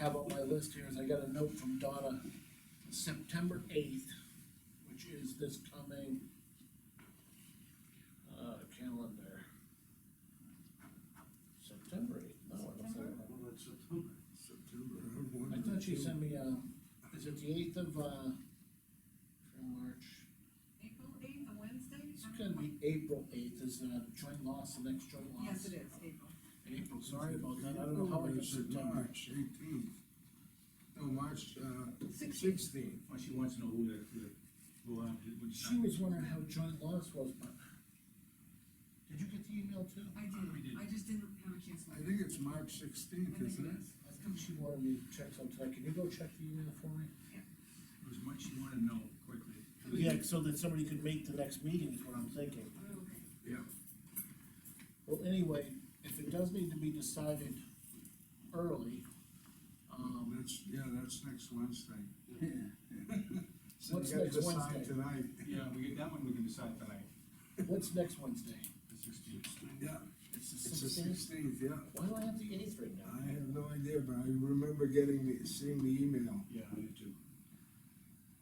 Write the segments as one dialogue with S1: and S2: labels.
S1: have on my list here is I got a note from Donna, September eighth, which is this coming uh, calendar. September eighth, no, I don't think.
S2: Well, it's September.
S3: September. I have one
S1: I thought she
S3: or two.
S1: sent me, uh, is it the eighth of, uh, from March?
S4: April eighth, a Wednesday?
S1: It's gonna be April eighth is, uh, joint loss, the next joint loss.
S4: Yes, it is, April.
S1: April, sorry about that, I don't know how I
S3: September,
S1: got September.
S3: March eighteenth. No, March, uh,
S4: Sixteenth.
S3: sixteenth.
S5: Well, she wants to know who the, the, who, uh, did- when
S1: She was wondering how joint loss was, but. Did you get the email too?
S4: I
S5: We
S4: did,
S5: did.
S4: I just didn't have a chance. to
S3: I
S4: look.
S3: think it's March sixteenth,
S4: I think
S3: isn't it?
S4: is.
S1: I think she wanted me to check sometime, can you go check the email for me?
S5: It was much she wanted to know quickly.
S1: Yeah, so that somebody could make the next meeting is what I'm thinking.
S4: Oh, okay.
S3: Yeah.
S1: Well, anyway, if it does need to be decided early, um,
S3: That's, yeah, that's next Wednesday. So you
S1: What's
S3: gotta
S1: next
S3: decide
S1: Wednesday?
S3: Tonight.
S5: Yeah, we get that one, we can decide tonight,
S1: what's next Wednesday?
S5: the sixteenth.
S3: Yeah,
S1: It's the
S3: it's the
S1: sixteenth?
S3: sixteenth, yeah.
S1: Why do I have the eighth right now?
S3: I have no idea, but I remember getting, the seeing the email.
S5: Yeah, I did too.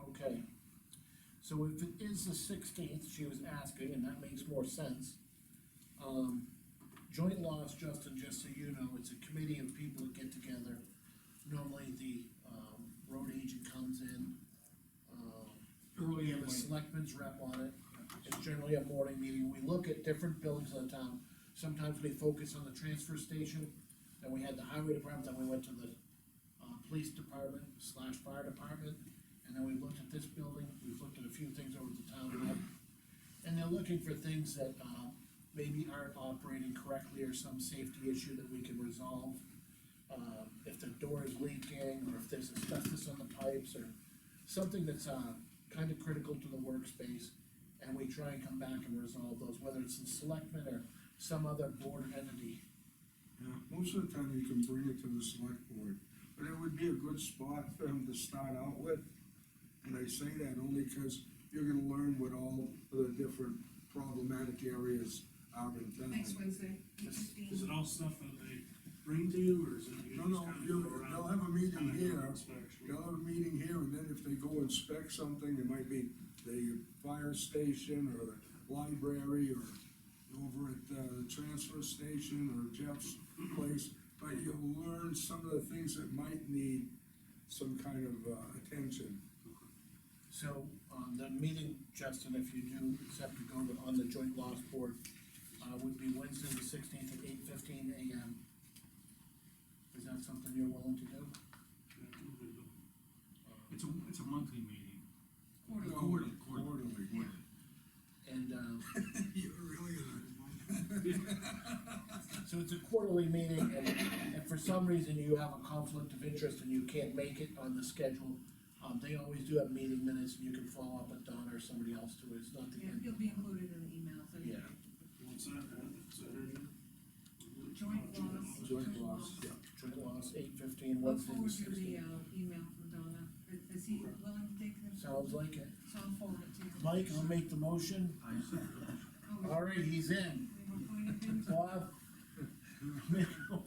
S1: Okay. So if it is the sixteenth, she was asking, and that makes more sense. Um, joint loss, Justin, just so you know, it's a committee of people that get together. Normally, the, um, road agent comes in, um, we
S5: Early in
S1: have a
S5: the.
S1: selectmen's rep on it, it's generally a morning meeting, we look at different buildings in the town. Sometimes we focus on the transfer station, then we had the highway department, then we went to the, uh, police department slash fire department. And then we looked at this building, we've looked at a few things over at the town rep. And they're looking for things that, uh, maybe aren't operating correctly or some safety issue that we can resolve. Uh, if the door is leaking, or if there's asbestos on the pipes, or something that's, uh, kind of critical to the workspace. And we try and come back and resolve those, whether it's in selectmen or some other board entity.
S3: Yeah, most of the time you can bring it to the select board, but it would be a good spot for them to start out with. And I say that only because you're gonna learn what all the different problematic areas are in
S4: Next
S3: town.
S4: Wednesday, eight
S6: Is
S4: fifteen.
S6: is it all stuff that they bring to you, or is it? you
S3: No,
S6: just
S3: no,
S6: kinda
S3: you,
S6: go around,
S3: they'll have a meeting
S6: kinda go
S3: here,
S6: around inspection?
S3: they'll have a meeting here, and then if they go inspect something, it might be the fire station or the library or over at, uh, the transfer station or Jeff's place, but you'll learn some of the things that might need some kind of, uh, attention.
S1: So, um, the meeting, Justin, if you do accept to go on the joint loss board, uh, would be Wednesday the sixteenth at eight fifteen AM. Is that something you're willing to do?
S6: Yeah, we'll do it.
S5: It's a, it's a monthly meeting.
S4: Quarterly.
S5: Quarterly, quarterly.
S3: Quarterly.
S1: And, uh,
S3: You're really gonna.
S1: so it's a quarterly meeting, and if for some reason you have a conflict of interest and you can't make it on the schedule, um, they always do have meeting minutes, and you can follow up with Donna or somebody else too, it's not the
S4: Yeah,
S1: end.
S4: he'll be included in the emails. so you-
S1: Yeah.
S6: What's that, uh, is that her name?
S4: Joint
S6: Joint
S4: loss.
S3: Joint loss, yeah.
S1: Joint loss, eight fifteen,
S4: Look
S1: Wednesday the
S4: forward to the,
S1: sixteenth.
S4: uh, email from Donna, is, is he willing to take this?
S1: Sounds like it.
S4: So I'll forward it to you.
S1: Mike, I'll make the motion.
S5: I said,
S4: Oh,
S1: All right, he's in.
S4: we were pointing him to-
S1: Bob?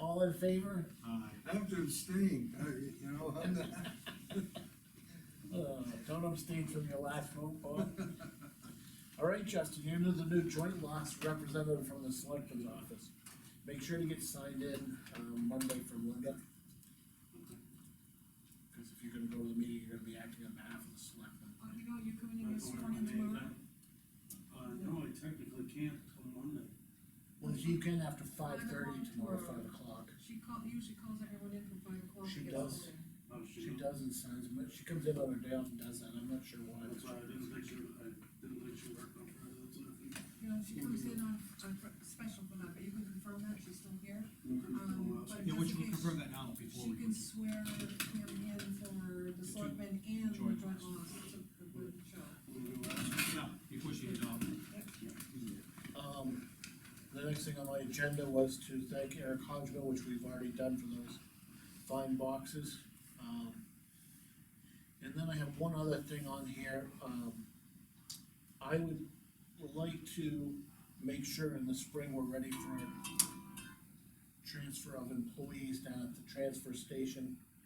S1: All in favor?
S5: uh,
S3: I have to abstain, I, uh, you know, I'm not,
S1: Uh, don't abstain from your last vote, Bob. All right, Justin, you're the new joint loss representative from the selectmen's office. Make sure to get signed in, um, Monday from Linda,
S6: Okay.
S1: because if you're gonna go to the meeting, you're gonna be acting on behalf of the selectmen.
S4: Oh, you know, you're coming
S6: I
S4: in,
S6: don't
S4: you're
S6: know
S4: sworn in
S6: if I made
S4: tomorrow?
S6: that. Uh, no, I technically can't till Monday.
S1: Well, you can after five thirty tomorrow, five o'clock.
S4: She call, usually calls everyone in from five o'clock.
S1: She
S4: to get
S1: does.
S4: sworn in.
S6: Oh,
S1: She
S6: knows.
S1: does and signs, but she comes in on her day off and does that, I'm not sure why. but
S6: That's
S1: she
S6: why I
S1: does.
S6: didn't think she, I didn't think she worked on Friday, that's what I think.
S4: You know, she comes in on, on fr- special for that, but you can confirm that, she's still here.
S6: Um,
S4: but-
S5: yeah, which we'll confirm that now before
S4: She
S5: we.
S4: can swear him in for the selectmen and the joint
S5: joint
S4: loss, it's a good show.
S6: We'll do that.
S5: Yeah, before she is off.
S1: Um, the next thing on my agenda was to thank Eric Hodgman, which we've already done for those fine boxes. Um, and then I have one other thing on here, um, I would, would like to make sure in the spring we're ready for our transfer of employees down at the transfer station.